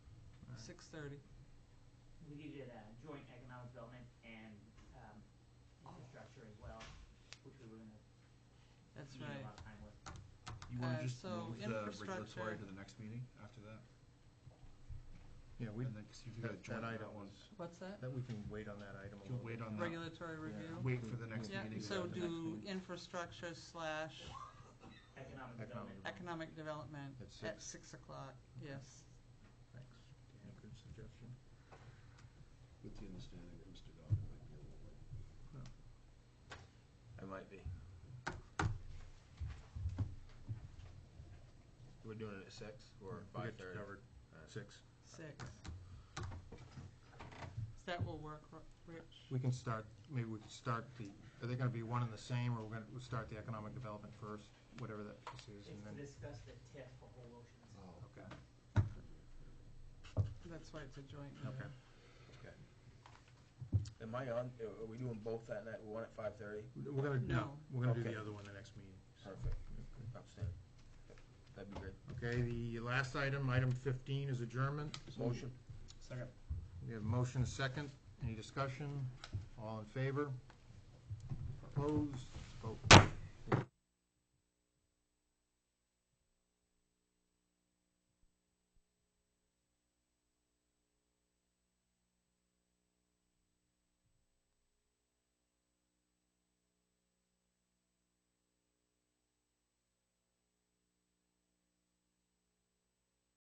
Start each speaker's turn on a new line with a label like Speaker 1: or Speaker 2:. Speaker 1: Six thirty.
Speaker 2: We needed a uh, joint economic development and, um, infrastructure as well, which we were gonna.
Speaker 1: That's
Speaker 2: need a
Speaker 1: right.
Speaker 2: lot of time with.
Speaker 3: You want
Speaker 1: Uh,
Speaker 3: to just
Speaker 1: so
Speaker 3: move the regulatory
Speaker 1: infrastructure-
Speaker 3: to the next meeting after that?
Speaker 4: Yeah, we,
Speaker 3: And then, because you've got a
Speaker 4: that that
Speaker 3: joint
Speaker 4: item
Speaker 3: that one.
Speaker 4: was,
Speaker 1: What's that?
Speaker 4: that we can wait on that item a
Speaker 3: You'll
Speaker 4: little
Speaker 3: wait
Speaker 4: bit.
Speaker 3: on that.
Speaker 1: Regulatory
Speaker 4: Yeah.
Speaker 1: review?
Speaker 3: Wait for the next
Speaker 1: Yeah,
Speaker 3: meeting.
Speaker 1: so
Speaker 3: the next
Speaker 1: do
Speaker 3: meeting.
Speaker 1: infrastructure slash
Speaker 2: Economic
Speaker 4: Economic
Speaker 2: development.
Speaker 4: development.
Speaker 1: economic development
Speaker 4: At six.
Speaker 1: at six o'clock, yes.
Speaker 4: Thanks, Dan, good suggestion.
Speaker 5: With the understanding that Mr. Dodd might be a little late.
Speaker 6: I might be. We're doing it at six or
Speaker 4: We'll
Speaker 6: five
Speaker 4: get you
Speaker 6: thirty?
Speaker 4: covered. Six.
Speaker 1: Six. So that will work, Ro- Rich.
Speaker 4: We can start, maybe we can start the, are they gonna be one and the same, or we're gonna, we'll start the economic development first, whatever that piece is, and
Speaker 2: It's to
Speaker 4: then,
Speaker 2: discuss the TIF for Whole Oceans.
Speaker 5: Oh,
Speaker 4: okay,
Speaker 1: That's why it's a joint
Speaker 4: okay.
Speaker 1: meeting.
Speaker 6: Am I on, are we doing both that night, one at five thirty?
Speaker 4: We're gonna, no,
Speaker 1: No.
Speaker 4: we're gonna do
Speaker 6: Okay.
Speaker 4: the other one the next meeting. so.
Speaker 6: Perfect. Outstanding. That'd be great.
Speaker 4: Okay, the last item, item fifteen, is adjournment.
Speaker 6: Motion?
Speaker 3: Second.
Speaker 4: We have motion second. Any discussion? All in favor? Opposed?